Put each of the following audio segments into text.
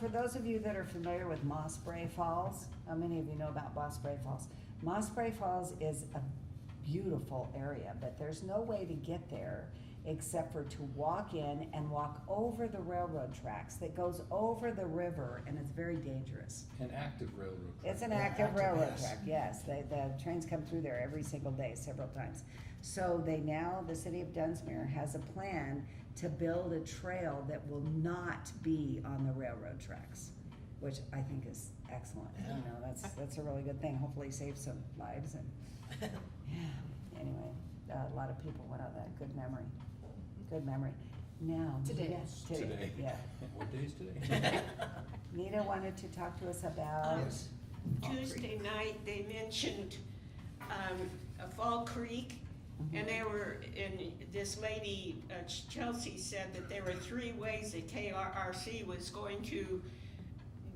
For those of you that are familiar with Moss Bray Falls, how many of you know about Moss Bray Falls? Moss Bray Falls is a beautiful area, but there's no way to get there except for to walk in and walk over the railroad tracks that goes over the river, and it's very dangerous. An active railroad. It's an track. active railroad yes. track, yes, the, the trains come through there every single day, several times. So they now, the city of Dunsmere has a plan to build a trail that will not be on the railroad tracks, which I think is excellent, you Yeah. know, that's, that's a really good thing, hopefully save some lives and, yeah, anyway, uh, a lot of people went on that, good memory, good memory. Now, Today. yes, today, Today. yeah. What day is today? Nita wanted to talk to us about, Um, Yes. Tuesday night, they mentioned, um, a Fall Creek, and they were, and this lady, uh, Ch- Chelsea said that there were three ways that KRRC was going to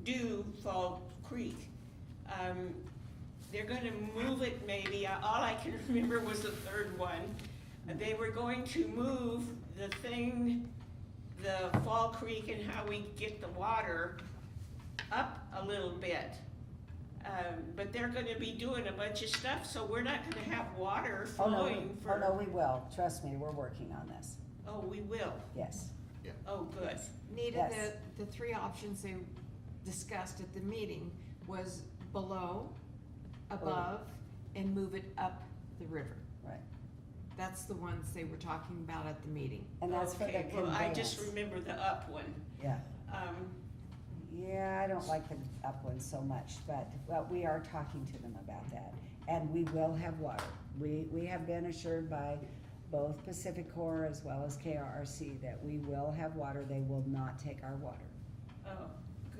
do Fall Creek. Um, they're gonna move it maybe, Uh, all I can remember was the third one. Uh, They were going to move the thing, the Fall Creek and how we get the water up a little bit. Um, but they're gonna be doing a bunch of stuff, so we're not gonna have water oh no, we- flowing oh no, for, we will, trust me, we're working on this, oh, we will, yes. oh, good. Nita, Yes. the, the three options they discussed at the meeting was below, above, and move it up the river. Right. That's the ones they were talking about at the meeting. And that's for the Okay, Well, I just conveyance. remember the up one, Yeah, um, yeah, I don't like the up one so much, but, but we are talking to them about that. And we will have water. We, we have been assured by both Pacific Corps as well as KRRC that we will have water. They will not take our water. oh,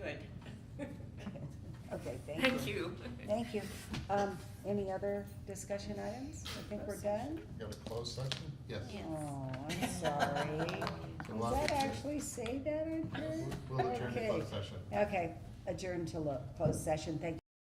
good. Okay, thank you. Thank Thank you. you. Um, any other discussion items? I think we're done? You have a closed session? Yes. Oh, I'm sorry. Does So we'll that have to- actually say that on here? We'll adjourn the Okay. closed session. Okay, adjourn to lo- closed session. Thank you.